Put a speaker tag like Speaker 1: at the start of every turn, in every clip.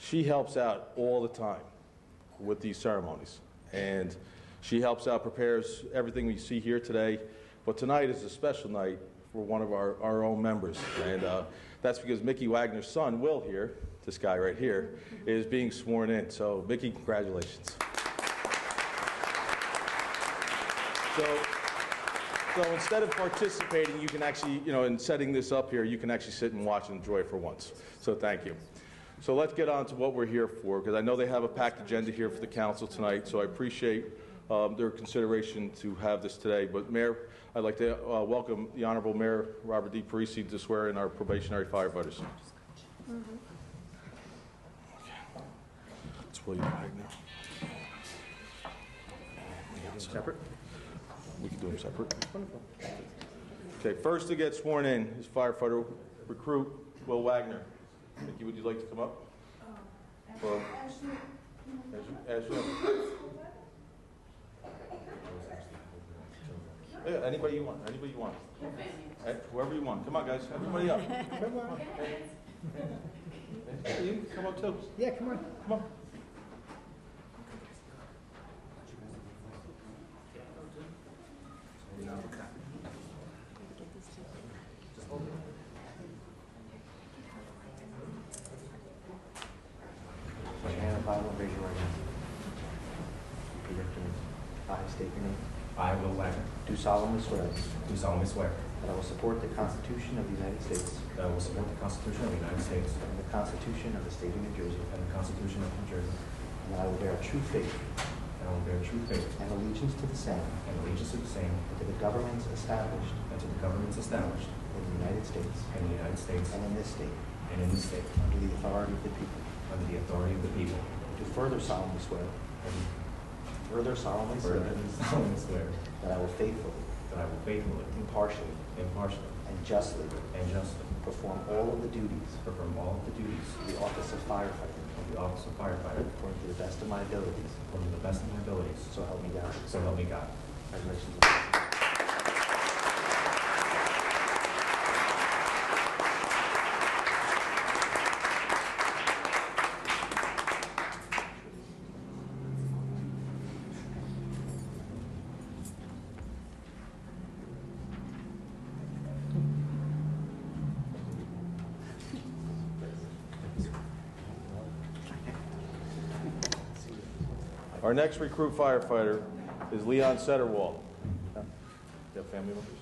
Speaker 1: she helps out all the time with these ceremonies. And she helps out, prepares everything we see here today. But tonight is a special night for one of our, our own members. And uh, that's because Mickey Wagner's son, Will, here, this guy right here, is being sworn in. So, Mickey, congratulations. So, so instead of participating, you can actually, you know, in setting this up here, you can actually sit and watch and enjoy for once. So thank you. So let's get on to what we're here for, because I know they have a packed agenda here for the council tonight, so I appreciate um, their consideration to have this today. But Mayor, I'd like to uh, welcome the Honorable Mayor Robert D. Parisi to swear in our probationary firefighters. Okay. Let's pull you back now. Separate? We can do them separate. Okay, first to get sworn in is firefighter recruit Will Wagner. Mickey, would you like to come up? Well, as you- as you- Yeah, Anybody you want, anybody you want. Eh, Whoever you want, come on, guys, everybody up. Come on. Eh, You can come up too.
Speaker 2: Yeah, come on.
Speaker 1: Come on.
Speaker 3: Put your hand on the Bible, raise your right hand. Repeat after me. I state your name.
Speaker 4: I, Will Wagner,
Speaker 3: Do solemnly swear
Speaker 4: do solemnly swear
Speaker 3: that I will support the Constitution of the United States
Speaker 4: that I will support the Constitution of the United States
Speaker 3: and the Constitution of the State of New Jersey,
Speaker 4: and the Constitution of New Jersey,
Speaker 3: and that I will bear true faith
Speaker 4: and I will bear true faith
Speaker 3: and allegiance to the same
Speaker 4: and allegiance to the same
Speaker 3: and to the governments established
Speaker 4: and to the governments established
Speaker 3: in the United States
Speaker 4: in the United States
Speaker 3: and in this state
Speaker 4: and in this state,
Speaker 3: under the authority of the people.
Speaker 4: under the authority of the people,
Speaker 3: Do further solemnly swear,
Speaker 4: and
Speaker 3: further solemnly swear
Speaker 4: further solemnly swear
Speaker 3: that I will faithfully,
Speaker 4: that I will faithfully,
Speaker 3: impartially,
Speaker 4: impartially,
Speaker 3: and justly
Speaker 4: and justly
Speaker 3: perform all of the duties
Speaker 4: perform all of the duties
Speaker 3: of the office of firefighter
Speaker 4: of the office of firefighter
Speaker 3: According to the best of my abilities.
Speaker 4: according to the best of my abilities,
Speaker 3: So help me God.
Speaker 4: so help me God.
Speaker 3: Congratulations.
Speaker 1: Our next recruit firefighter is Leon Setterwall. You have family members?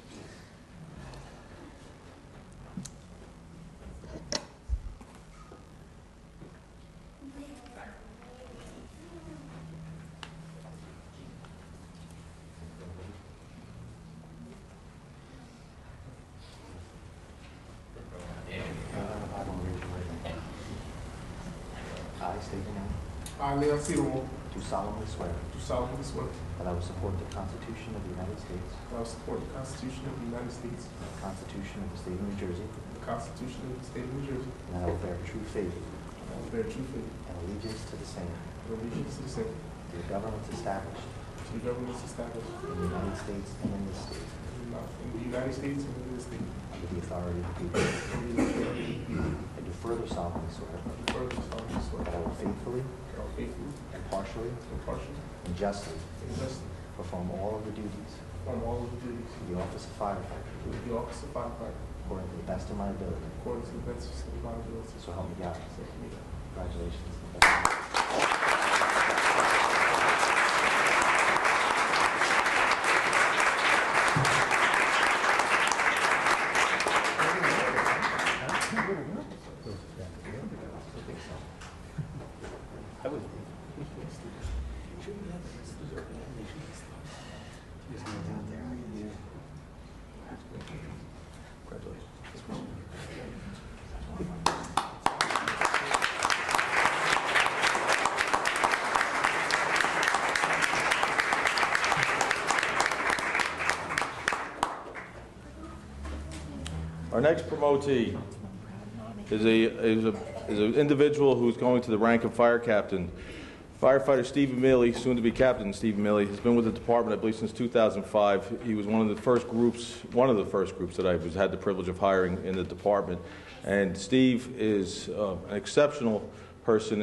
Speaker 3: Uh, I don't raise your right hand. I state your name.
Speaker 5: I, Leon Seymour,
Speaker 3: Do solemnly swear
Speaker 5: do solemnly swear
Speaker 3: that I will support the Constitution of the United States,
Speaker 5: that I will support the Constitution of the United States,
Speaker 3: the Constitution of the State of New Jersey,
Speaker 5: the Constitution of the State of New Jersey,
Speaker 3: and that I will bear true faith
Speaker 5: and I will bear true faith
Speaker 3: and allegiance to the same,
Speaker 5: and allegiance to the same,
Speaker 3: to the governments established
Speaker 5: to the governments established
Speaker 3: in the United States and in this state,
Speaker 5: in the- in the United States and in this state,
Speaker 3: under the authority of the people.
Speaker 5: and the authority of the people.
Speaker 3: I do further solemnly swear
Speaker 5: I do further solemnly swear
Speaker 3: that I
Speaker 5: that
Speaker 3: will faithfully,
Speaker 5: I will faithfully,
Speaker 3: impartially,
Speaker 5: impartially,
Speaker 3: and justly
Speaker 5: and justly
Speaker 3: perform all of the duties
Speaker 5: perform all of the duties
Speaker 3: of the office of firefighter
Speaker 5: of the office of firefighter
Speaker 3: According to the best of my ability.
Speaker 5: according to the best of my abilities.
Speaker 3: So help me God.
Speaker 5: So help me God.
Speaker 3: Congratulations.
Speaker 1: Our next promotee is a, is a, is an individual who's going to the rank of fire captain. Firefighter Stephen Milley, soon to be Captain Stephen Milley, has been with the department, I believe, since 2005. He was one of the first groups, one of the first groups that I was, had the privilege of hiring in the department. And Steve is uh, an exceptional person